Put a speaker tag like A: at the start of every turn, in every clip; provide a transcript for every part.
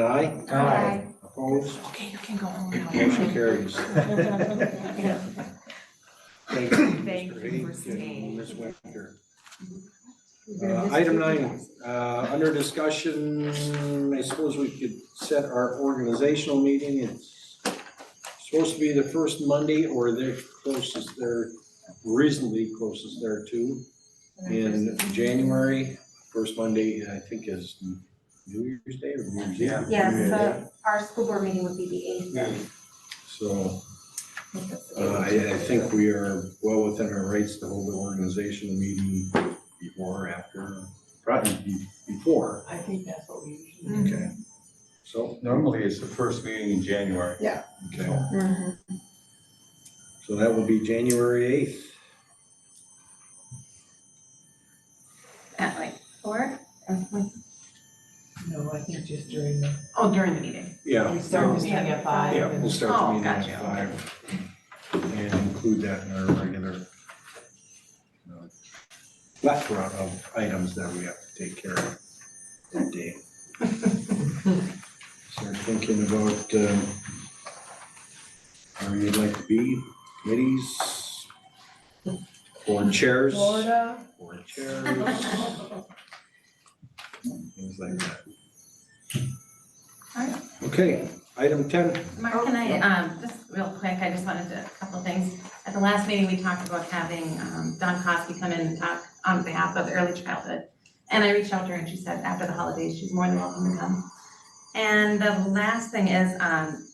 A: Aye.
B: Aye.
A: Opposed?
C: Okay, you can go home now.
A: Motion carries. Thank you,
C: Thank you
A: Mr.
C: for
A: Hayes
C: staying.
A: and Ms. Winter. Uh, Item nine, uh, under discussion, I suppose we could set our organizational meeting. It's supposed to be the first Monday or the closest there, reasonably closest there to in January. First Monday, I think is New Year's Day or New Year's Eve.
D: Yeah.
B: Yes, so our school board meeting would be the eighth then.
A: So uh, I, I think we are well within our rights to hold an organizational meeting before or after, probably be- before.
C: I think that's what we usually.
B: Mm.
C: do.
A: Okay. So,
D: Normally, it's the first meeting in January.
A: okay, so that will be January eighth.
B: At like four?
E: No, I think just during the.
B: Oh, during the meeting.
A: Yeah,
E: We start this
C: Yeah.
E: thing at five.
A: yeah,
E: and-
A: we'll start the
B: Oh,
A: meeting at
B: gotcha,
A: five. And include that in our regular uh, plethora of items that we have to take care of that day. Start thinking about, um, where you'd like to be, committees, board chairs.
E: Florida,
A: Board chairs, things like that.
B: Alright.
A: Okay, item ten,
B: Mark, can I, um, just real quick, I just wanted to, a couple things. At the last meeting, we talked about having, um, Don Kosky come in and talk on behalf of early childhood. And I reached out to her and she said after the holidays, she's more than welcome to come. And the last thing is, um,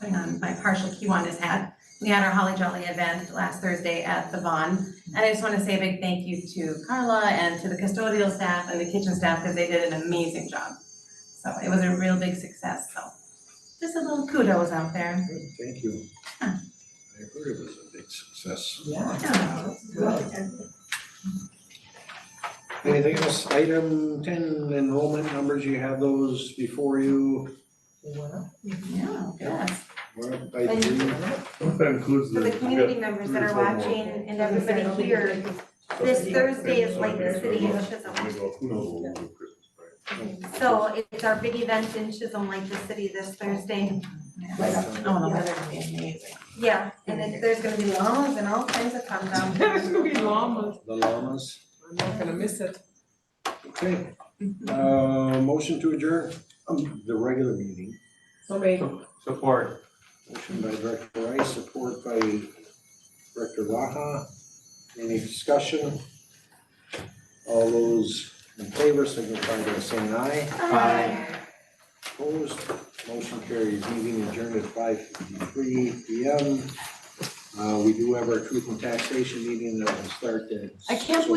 B: putting on my partial Kiwanis hat. We had our Holly Jolly event last Thursday at the Vaughn. And I just want to say a big thank you to Carla and to the custodial staff and the kitchen staff because they did an amazing job. So it was a real big success, so just a little kudos out there.
A: Good, thank you. I
B: Yeah.
A: heard it was a big success.
E: yeah.
B: Yeah.
E: that's good.
A: Anything else, item ten, enrollment numbers, you have those before you,
E: Well,
B: Yeah, yes.
A: We're up by three.
D: That includes
B: For the community members that are watching and everybody here, this Thursday is like the City of Chisholm.
D: Who knows what we'll do Christmas, right?
B: So it's our big event in Chisholm, like the city this Thursday.
C: Oh, no, that's gonna be amazing.
B: Yeah, and then there's gonna be llamas and all kinds of fun down.
E: It's gonna be llamas.
A: The llamas,
E: I'm not gonna miss it.
A: okay,
E: Mm-hmm.
A: uh, motion to adjourn, um, the regular meeting,
E: So maybe.
D: Support.
A: motion by Director Rice, support by Director Raha. Any discussion? All those in favor signify by saying aye, opposed, motion carries, meeting adjourned at five fifty-three P M. Uh, we do have our truth and taxation meeting that will start at.
C: I can't believe